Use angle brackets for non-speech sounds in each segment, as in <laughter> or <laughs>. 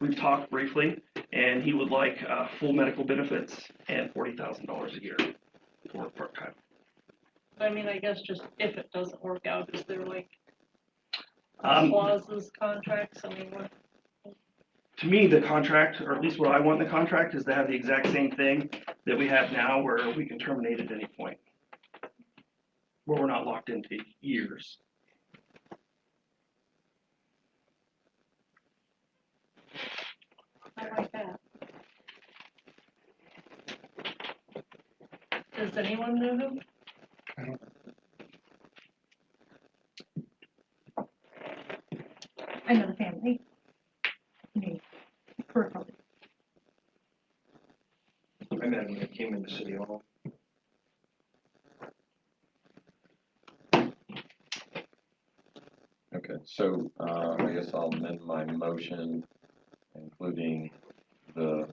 we've talked briefly, and he would like, uh, full medical benefits and forty thousand dollars a year for part-time. I mean, I guess just if it doesn't work out, is there like Um, clauses, contracts, I mean, what, to me, the contract, or at least what I want in the contract, is to have the exact same thing that we have now where we can terminate at any point. Where we're not locked into years. I like that. Does anyone know him? I know the family. Me, personally. I met him when I came into City Hall. Okay, so, uh, I guess I'll amend my motion, including the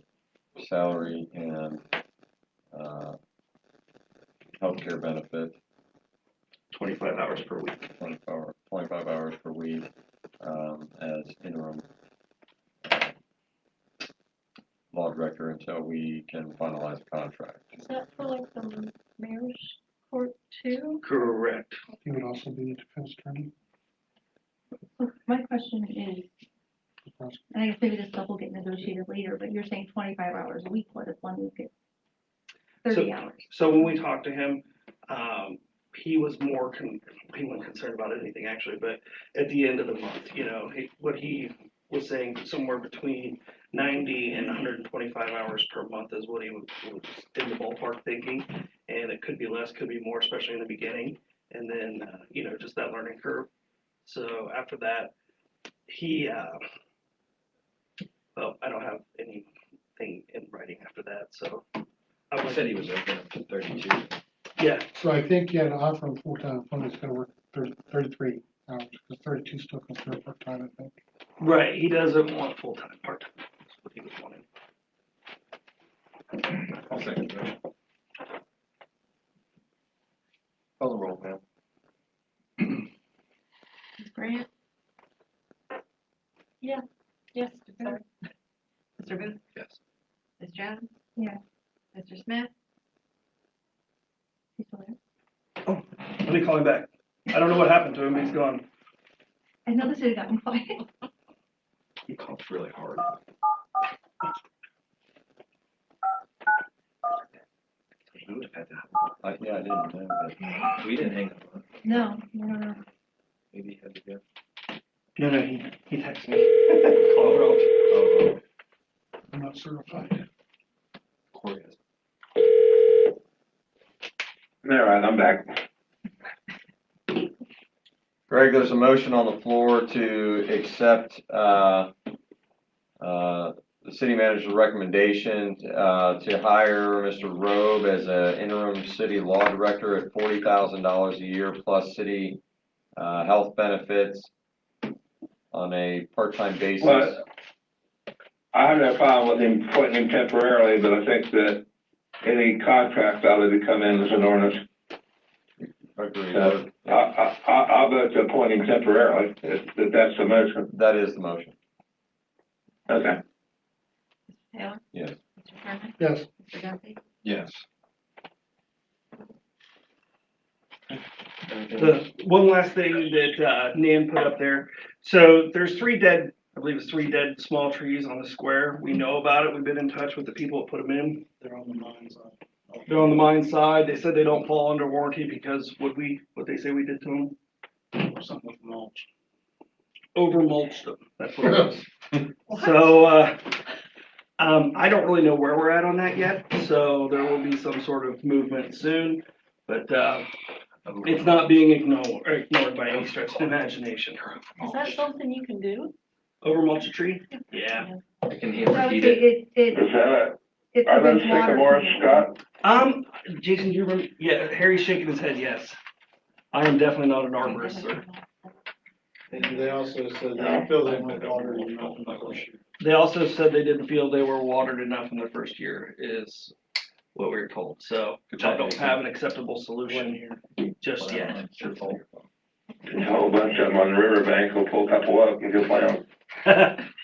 salary and, uh, healthcare benefit, Twenty-five hours per week. twenty-five, hour- 25 hours per week, um, as interim uh, law director until we can finalize the contract. Is that for like the mayor's court too? Correct. He would also be the defense attorney. So My question is, and I guess maybe this stuff will get negotiated later, but you're saying twenty-five hours a week, what if one week it's thirty hours? So when we talked to him, um, he was more con- he wasn't concerned about anything actually, but at the end of the month, you know, he, what he was saying somewhere between ninety and hundred and twenty-five hours per month is what he was, was in the ballpark thinking. And it could be less, could be more, especially in the beginning, and then, uh, you know, just that learning curve. So after that, he, uh, well, I don't have anything in writing after that, so. I I would said he was open up to thirty-two. yeah, So I think, yeah, to offer him full-time employment is gonna work thirty, thirty-three hours, because thirty-two still considered part-time, I think. right. He doesn't want full time, part time. That's what he was wanting. I'll second that. Call the roll, Pam. Ms. Grant, Yes. Sorry. Mr. Booth, Yes. Ms. Jones? Yeah. Mr. Smith? He's still there? Let me call him back. I don't know what happened to him. He's gone. I know this would have <laughs> gotten quiet. He coughs really hard. We would have had to, hang I Uh, yeah, I didn't know that. up. we didn't hang up on it. No, no, no, no. Maybe he had to go. No, no, he he texted me. <laughs> Call her out. Oh, I'm not certified. Corey has. All right, I'm back. Greg, there's a motion on the floor to accept, uh, uh, the city manager's recommendation, uh, to hire Mr. Robe as a interim city law director at forty thousand dollars a year plus city, uh, health benefits on a part-time basis. Well, I have no problem with him appointing him temporarily, but I think that any contract ought to come in as an ordinance. Agreed. So I, I, I- I'll vote to appoint him temporarily, if, if that's the motion. That is the motion. Okay. Mr. Taylor? Yes. Mr. Sherman? Yes, Mr. Duffy? Yes. The one last thing that uh, Nan put up there. So there's three dead, I believe it's three dead small trees on the square. We know about it. We've been in touch with the people that put them in. they're on the mines, uh, They're on the mine side. They said they don't fall under warranty because what we what they say we did to them or something with mulch. over mulched them. That's what it was. So, uh, um, I don't really know where we're at on that yet, so there will be some sort of movement soon. But, uh, it's not being ignored, or ignored by any stretch of imagination. Is that something you can do? Over mulch a tree? Yeah. I can hear So him it, repeat it. it, Is it, that, it's. are those within water sycamores, control. Scott? Um, Jason, do you remember, yeah, Harry's shaking his head, yes. I am definitely not an arborist, sir. And they also said they feel they might daughter you not in my issue. They also said they didn't feel they were watered enough in their first year, is what we were told, so I don't have an acceptable solution just yet. It's your fault. There's a whole bunch of them on the riverbank, go pull a couple up and go play them. <laughs> That's